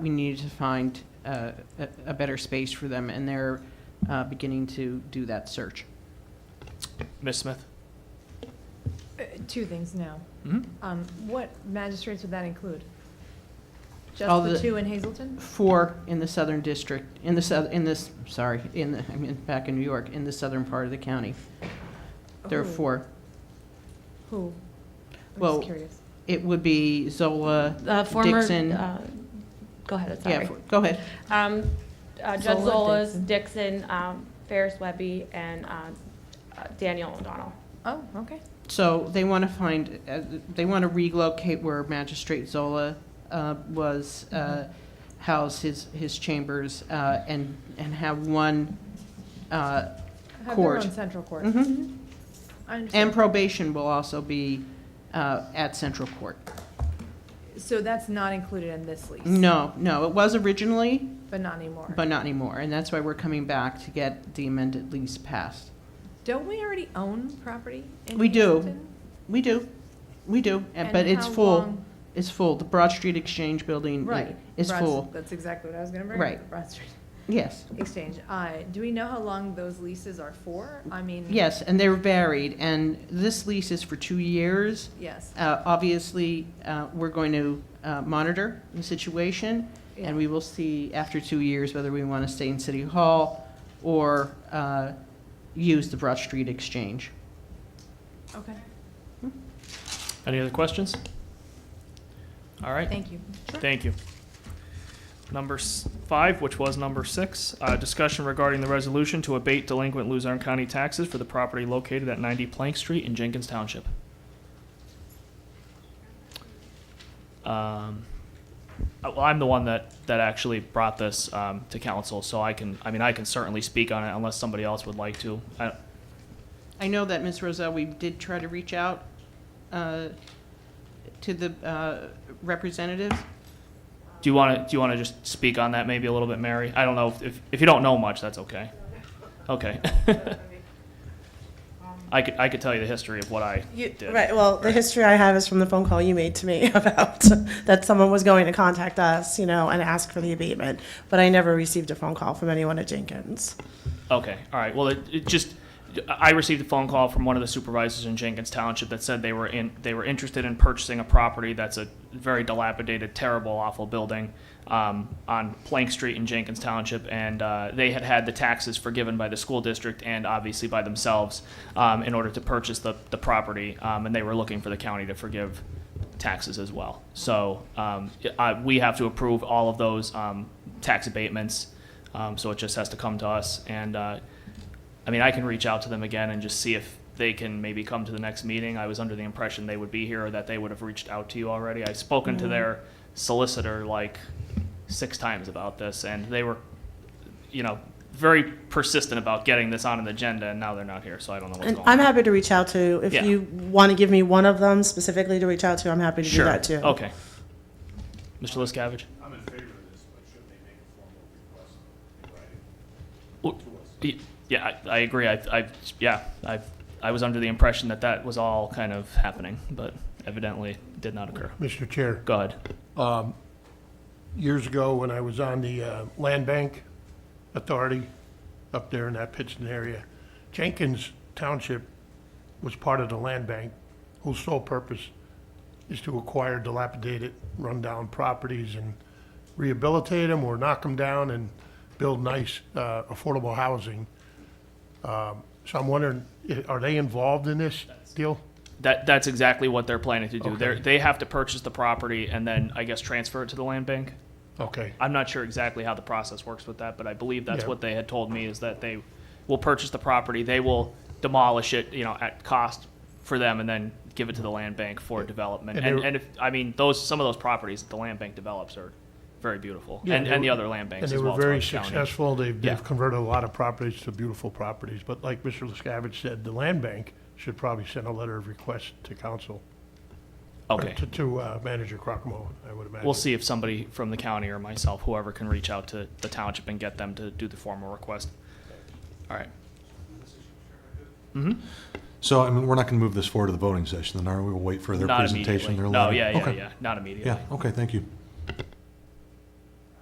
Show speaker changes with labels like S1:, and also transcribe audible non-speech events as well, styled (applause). S1: we needed to find uh, a a better space for them, and they're uh, beginning to do that search.
S2: Ms. Smith?
S3: Uh, Two things now. Um, What magistrates would that include?
S1: All
S3: Just the
S1: the-
S3: two in Hazelton?
S1: Four in the Southern District, in the south, in this, sorry, in, the I mean, back in New York, in the southern part of the county. There are
S3: Who?
S1: four.
S3: Who? I'm
S1: Well,
S3: just curious.
S1: It would be Zola,
S4: Uh, former,
S1: Dixon.
S4: uh, go ahead,
S1: yeah,
S4: sorry.
S1: for- go ahead.
S4: Um, uh, Judge
S3: Zola,
S4: Zolas, Dixon, um, Ferris Webby, and, uh, uh, Daniel O'Donnell.
S3: Oh, okay.
S1: So they want to find, uh, they want to relocate where Magistrate Zola uh, was uh, housed, his, his chambers, uh, and, and have one, uh,
S3: Have their
S1: Court. Mm-hmm.
S3: own central court.
S1: mhm.
S3: I
S1: And
S3: understand.
S1: probation will also be uh, at Central Court.
S3: So that's not included in this lease?
S1: No, no, it was originally,
S3: But not anymore?
S1: but not anymore, and that's why we're coming back to get the amended lease passed.
S3: Don't we already own property in
S1: We do.
S3: Hazelton?
S1: We do, we do, and-
S3: And
S1: but it's
S3: how
S1: full,
S3: long-
S1: it's full. The Broad Street Exchange Building i-
S3: Right.
S1: is
S3: Broad-
S1: full,
S3: That's exactly what I was going to bring. up,
S1: Right.
S3: Broad Street
S1: yes.
S3: (laughs) Exchange. Uh, Do we know how long those leases are for? I mean.
S1: Yes, and they're varied, and this lease is for two years.
S3: Yes.
S1: Uh, Obviously, uh, we're going to uh, monitor the situation,
S3: Yeah.
S1: And we will see after two years whether we want to stay in City Hall or uh, use the Broad Street Exchange.
S3: Okay,
S2: Any other questions? All right,
S3: thank you.
S2: thank you. Number s- five, which was number six, uh, discussion regarding the resolution to abate delinquent Luzerne County taxes for the property located at 90 Plank Street in Jenkins Township. Um, uh, Well, I'm the one that, that actually brought this um, to council, so I can, I mean, I can certainly speak on it unless somebody else would like to. I-
S1: I know that, Ms. Roselle, we did try to reach out uh, to the uh, representatives.
S2: Do you want to, do you want to just speak on that maybe a little bit, Mary? I don't know, if- if, if you don't know much, that's okay. Okay. I could, I could tell you the history of what I
S5: You,
S2: did.
S5: right. Well, the
S2: Right.
S5: history I have is from the phone call you made to me (laughs) about that someone was going to contact us, you know, and ask for the abatement. But I never received a phone call from anyone at Jenkins.
S2: Okay, all right, well, it, it just, I received a phone call from one of the supervisors in Jenkins Township that said they were in, they were interested in purchasing a property that's a very dilapidated, terrible, awful building, um, on Plank Street in Jenkins Township, and, uh, they had had the taxes forgiven by the school district and obviously by themselves, um, in order to purchase the, the property, um, and they were looking for the county to forgive taxes as well. So, um, I, we have to approve all of those, um, tax abatements, um, so it just has to come to us. And uh, I mean, I can reach out to them again and just see if they can maybe come to the next meeting. I was under the impression they would be here or that they would have reached out to you already. I've spoken
S5: Mm-hmm.
S2: to their solicitor like six times about this, and they were, you know, very persistent about getting this on an agenda, and now they're not here, so I don't know what's
S5: And
S2: going on.
S5: I'm happy to reach out to if
S2: Yeah.
S5: you want to give me one of them specifically to reach out to. I'm happy to
S2: Sure.
S5: do that too.
S2: Okay. Mr. Liscavige?
S6: I'm in favor of this, but shouldn't they make a formal request in writing
S2: Well,
S6: to us?
S2: Y- Yeah, I, I agree. I, I, yeah, I, I was under the impression that that was all kind of happening, but evidently did not occur.
S7: Mr. Chair,
S2: Go ahead.
S7: years ago, when I was on the uh, Land Bank Authority up there in that Pittston area, Jenkins Township was part of the land bank whose sole purpose is to acquire dilapidated, rundown properties and rehabilitate them or knock them down and build nice, uh, affordable housing. Um, So I'm wondering, i- are they involved in this deal?
S2: That, that's exactly what they're planning to do. They're,
S7: Okay.
S2: they have to purchase the property and then, I guess, transfer it to the land bank.
S7: Okay,
S2: I'm not sure exactly how the process works with that, but I believe that's
S7: Yeah.
S2: what they had told me is that they will purchase the property, they will demolish it, you know, at cost for them and then give it to the land bank for development.
S7: And
S2: And,
S7: they-
S2: and if, I mean, those, some of those properties that the land bank develops are very beautiful.
S7: Yeah,
S2: And,
S7: they
S2: and the
S7: were-
S2: other land
S7: And
S2: banks
S7: they
S2: as
S7: were
S2: well.
S7: very
S2: throughout the county.
S7: successful. They've,
S2: Yeah.
S7: they've converted a lot of properties to beautiful properties. But like Mr. Liscavich said, the land bank should probably send a letter of request to council. or
S2: Okay.
S7: To, to uh, Manager Crocamo, I would imagine.
S2: We'll see if somebody from the county or myself, whoever can reach out to the township and get them to do the formal request. All right.
S8: So, I mean, we're not going to move this forward to the voting session, then, are we? We'll wait for their
S2: Not
S8: presentation,
S2: immediately.
S8: their
S2: No,
S8: letter?
S2: yeah, yeah,
S8: Okay.
S2: yeah, not immediately.
S8: Yeah, okay, thank you.